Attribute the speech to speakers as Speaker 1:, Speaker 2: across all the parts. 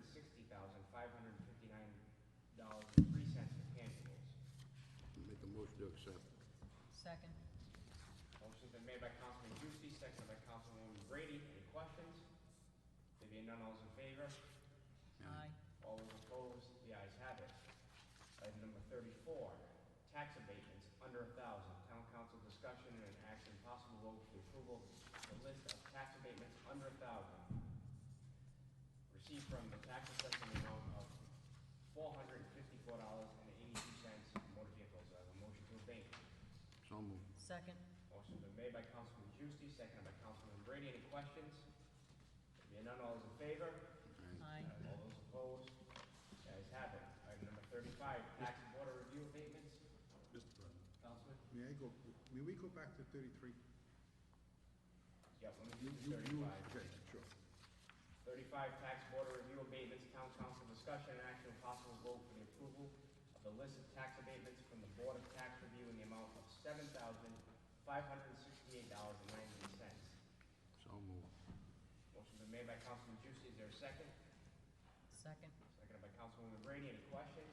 Speaker 1: thousand five hundred and fifty-nine dollars and three cents for tangibles.
Speaker 2: Make a motion to accept.
Speaker 3: Second.
Speaker 1: Motion's been made by Councilman Juicy, seconded by Councilwoman Brady. Any questions? There being none, all those in favor?
Speaker 3: Aye.
Speaker 1: All those opposed? The ayes have it. Item number thirty-four, tax abatements under a thousand. Town council discussion and an action possible vote for the approval of the list of tax abatements under a thousand. Received from the tax assessment amount of four hundred and fifty-four dollars and eighty-two cents motor vehicles. I have a motion to abate.
Speaker 2: So moved.
Speaker 3: Second.
Speaker 1: Motion's been made by Councilman Juicy, seconded by Councilman Brady. Any questions? There being none, all those in favor?
Speaker 3: Aye.
Speaker 1: All those opposed? The ayes have it. Item number thirty-five, tax and water review abatements.
Speaker 4: Mr. President,
Speaker 1: Councilman?
Speaker 4: may I go, may we go back to thirty-three?
Speaker 1: Yeah, let
Speaker 4: You-
Speaker 1: me do
Speaker 4: you- you-
Speaker 1: thirty-five.
Speaker 4: Okay, sure.
Speaker 1: Thirty-five, tax and water review abatements, town council discussion and action, possible vote for the approval of the list of tax abatements from the Board of Tax Review in the amount of seven thousand five hundred and sixty-eight dollars and ninety cents.
Speaker 2: So moved.
Speaker 1: Motion's been made by Councilman Juicy. Is there a second?
Speaker 3: Second.
Speaker 1: Seconded by Councilwoman Brady. Any questions?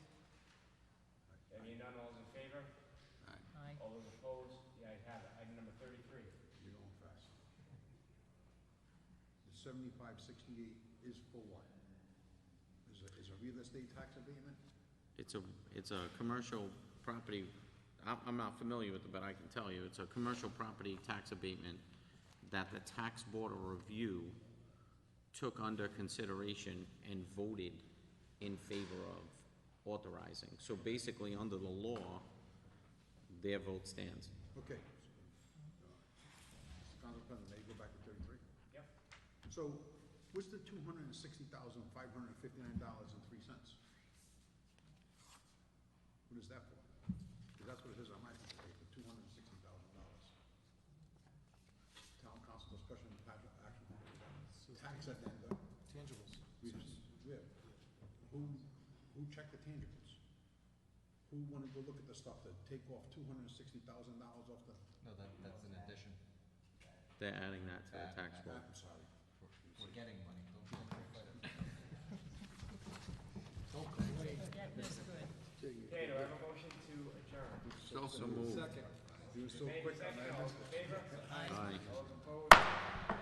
Speaker 1: There being none, all those in favor?
Speaker 2: Aye.
Speaker 3: Aye.
Speaker 1: All those opposed? The ayes have it. Item number thirty-three.
Speaker 4: You're going fast. The seventy-five sixty-eight is for what? Is a, is a real estate tax abatement?
Speaker 5: It's a, it's a commercial property, I'm, I'm not familiar with it, but I can tell you, it's a commercial property tax abatement that the tax board of review took under consideration and voted in favor of authorizing. So basically, under the law, their vote stands.
Speaker 4: Okay. Uh, Council President, may I go back to thirty-three?
Speaker 1: Yep.
Speaker 4: So what's the two hundred and sixty thousand, five hundred and fifty-nine dollars and three cents? What is that for? 'Cause that's what it is on my piece of paper, two hundred and sixty thousand dollars. Town council discussion and potential action. Tax addenda.
Speaker 6: Tangibles.
Speaker 4: We just, yeah. Who, who checked the tangibles? Who wanted to look at the stuff to take off two hundred and sixty thousand dollars off the,
Speaker 6: No, that, that's an addition.
Speaker 5: They're adding that to the tax roll.
Speaker 4: I'm sorry.
Speaker 6: We're getting money. Don't complain. Don't complain.
Speaker 3: Get this good.
Speaker 1: Okay, do I have a motion to adjourn?
Speaker 2: So moved.
Speaker 4: You were so
Speaker 1: Made
Speaker 4: quick on
Speaker 1: second,
Speaker 4: that.
Speaker 1: all those in favor?
Speaker 5: Aye.
Speaker 1: All those opposed?